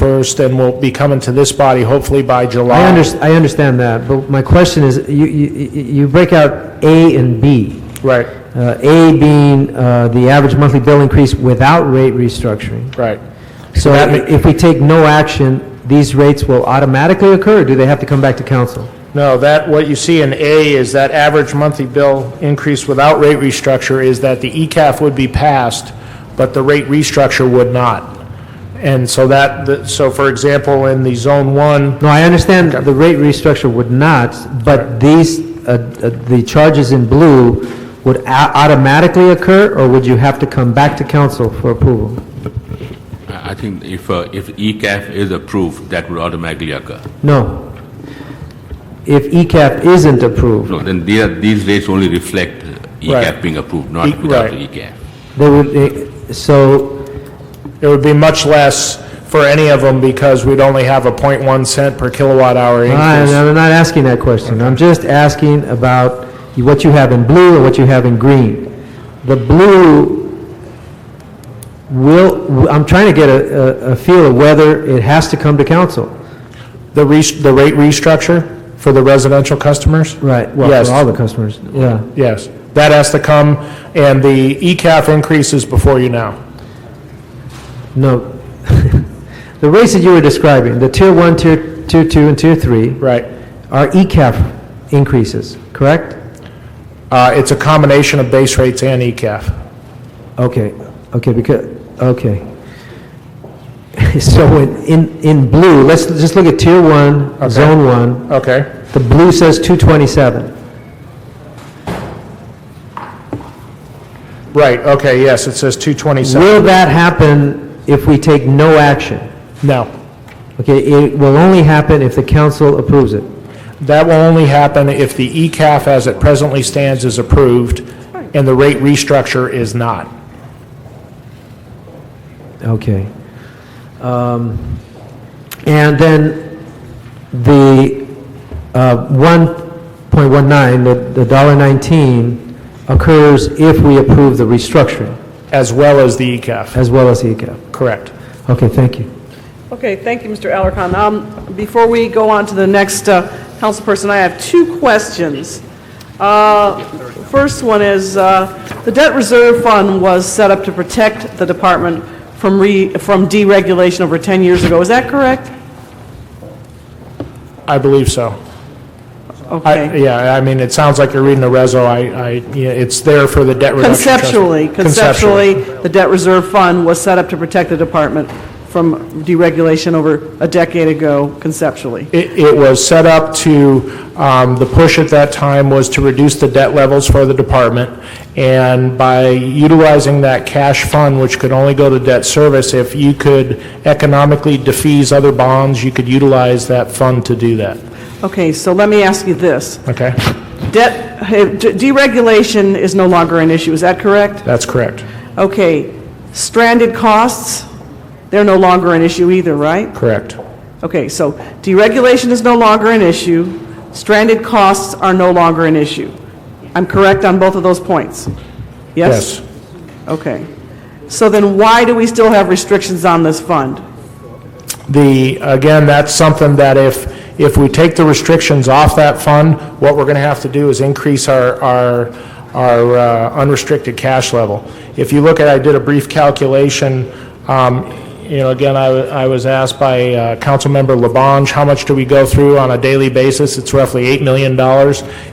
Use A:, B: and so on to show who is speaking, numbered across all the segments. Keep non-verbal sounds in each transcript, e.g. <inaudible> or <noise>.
A: 31st and will be coming to this body hopefully by July.
B: I under, I understand that, but my question is, you, you, you break out A and B.
A: Right,
B: Uh, A being, uh, the average monthly bill increase without rate restructuring.
A: right.
B: So
A: That ma-
B: if we take no action, these rates will automatically occur, or do they have to come back to council?
A: No, that, what you see in A is that average monthly bill increase without rate restructure is that the E ECAF would be passed, but the rate restructure would not. And so that, the- so for example, in the Zone 1,
B: No, I understand the rate restructure would not, but these, uh, uh, the charges in blue would au- automatically occur, or would you have to come back to council for approval?
C: I I think if, uh, if ECAF is approved, that would automatically occur.
B: No. If E ECAP isn't approved,
C: No, then these, are- these rates only reflect
A: Right.
C: ECAF being approved,
A: E-
C: not without
A: right.
C: ECAF.
B: they would, eh, so,
A: it would be much less for any of them because we'd only have a .1 cent per kilowatt hour
B: I-
A: increase.
B: I'm not asking that question. I'm just asking about what you have in blue and what you have in green. The blue will, I'm trying to get a, a- a feel of whether it has to come to council.
A: The res- the rate restructure for the residential customers?
B: Right,
A: Yes.
B: well, for all the customers, yeah.
A: Yes, that has to come, and the E ECAF increase is before you now.
B: No, <laughs> the rates that you were describing, the tier one, tier, tier two, and tier three
A: Right.
B: are E ECAF increases, correct?
A: Uh, It's a combination of base rates and E ECAF.
B: Okay, okay, because, okay. <laughs> So in- in, in blue, let's just look at tier one, zone one,
A: Okay.
B: the blue says 227.
A: Right, okay, yes, it says 227.
B: Will that happen if we take no action?
A: No,
B: Okay, it will only happen if the council approves it.
A: that will only happen if the E ECAF as it presently stands is approved and the rate restructure is not.
B: Okay. Um, And then the uh, 1.19, the- the $1.19 occurs if we approve the restructuring
A: As well as the E ECAF,
B: as well as the ECAP.
A: correct.
B: Okay, thank you.
D: Okay, thank you, Mr. Alarcon. Um, Before we go on to the next uh, councilperson, I have two questions. Uh, First one is, uh, the debt reserve fund was set up to protect the department from re- from deregulation over 10 years ago. Is that correct?
A: I believe so. I-
D: Okay.
A: Yeah, I mean, it sounds like you're reading the reso, I, I, yeah, it's there for the debt reduction. trust.
D: Conceptually, conceptually, the debt reserve fund was set up to protect the department from deregulation over a decade ago, conceptually.
A: It, it was set up to, um, the push at that time was to reduce the debt levels for the department, and by utilizing that cash fund, which could only go to debt service, if you could economically defease other bonds, you could utilize that fund to do that,
D: Okay, so let me ask you this.
A: okay?
D: Debt, eh, deregulation is no longer an issue, is that correct?
A: That's correct,
D: Okay, stranded costs, they're no longer an issue either, right?
A: correct,
D: Okay, so deregulation is no longer an issue, stranded costs are no longer an issue. I'm correct on both of those points? Yes?
A: yes.
D: Okay. So then why do we still have restrictions on this fund?
A: The, again, that's something that if, if we take the restrictions off that fund, what we're going to have to do is increase our, our, our uh, unrestricted cash level. If you look at, I did a brief calculation, um, you know, again, I, wa- I was asked by uh, Councilmember Labange, how much do we go through on a daily basis? It's roughly $8 million.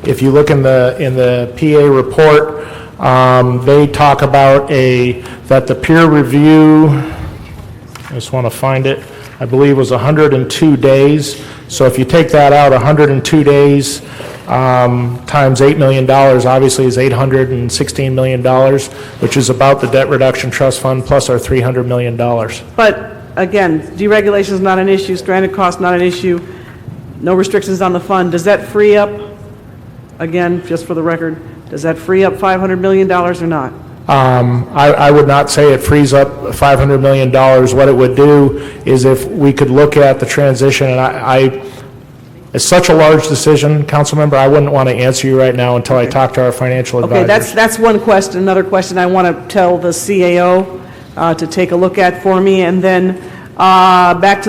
A: If you look in the, in the PA report, um, they talk about a, that the peer review, I just want to find it, I believe was 102 days. So if you take that out, 102 days um, times $8 million, obviously is $816 million, which is about the debt reduction trust fund plus our $300 million.
D: But again, deregulation is not an issue, stranded costs not an issue, no restrictions on the fund. Does that free up, again, just for the record, does that free up $500 million or not?
A: Um, I I would not say it frees up $500 million. What it would do is if we could look at the transition, and I, I- it's such a large decision, Councilmember, I wouldn't want to answer you right now until I talk to our financial advisors.
D: Okay, that's, that's one question. Another question I want to tell the CAO uh, to take a look at for me. And then, uh, back to